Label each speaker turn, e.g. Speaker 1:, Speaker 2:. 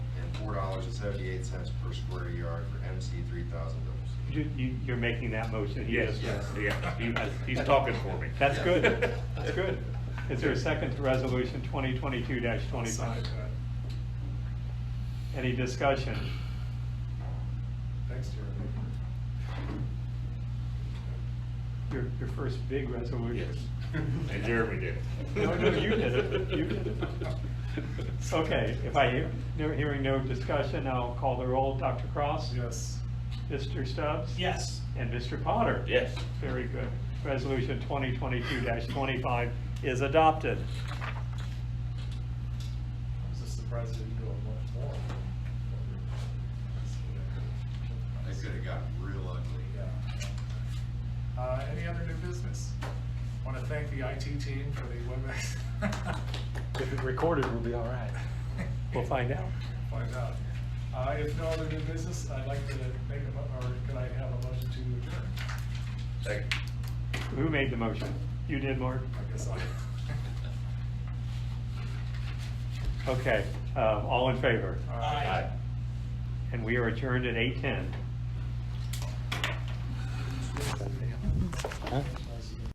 Speaker 1: dollars and seventy-eight cents per square yard for MC three thousand dose.
Speaker 2: You, you- you're making that motion? He
Speaker 3: Yes,
Speaker 2: just- uh,
Speaker 1: Yes.
Speaker 3: yeah, he has, he's talking for me.
Speaker 2: That's
Speaker 1: Yeah.
Speaker 2: good, that's good. Is there a second to resolution twenty twenty-two twenty-five? Any discussion?
Speaker 1: Thanks,
Speaker 2: Your, your first big resolution.
Speaker 3: Yes. And Jeremy did it.
Speaker 2: No, no, you did it. You did it. Okay, if I hear, no- hearing no discussion, I'll call the roll. Dr. Cross?
Speaker 4: Yes.
Speaker 2: Mr. Stubbs?
Speaker 4: Yes.
Speaker 2: And Mr. Potter?
Speaker 3: Yes.
Speaker 2: Very good. Resolution 2022-25 is adopted.
Speaker 4: I was just surprised that you go much more.
Speaker 1: That could've gotten real ugly.
Speaker 4: Yeah. Uh, any other new business? Want to thank the IT team for the WebEx.
Speaker 5: If it recorded, we'll be all right.
Speaker 2: We'll find out.
Speaker 4: Find out. Uh, if no other new business, I'd like to make a, mo- or could I have a motion to adjourn?
Speaker 3: Second.
Speaker 2: Who made the motion? You did, Mark?
Speaker 4: I guess I.
Speaker 2: Okay, um, all in favor?
Speaker 4: All right.
Speaker 2: And we are adjourned at 8:10.
Speaker 5: Huh?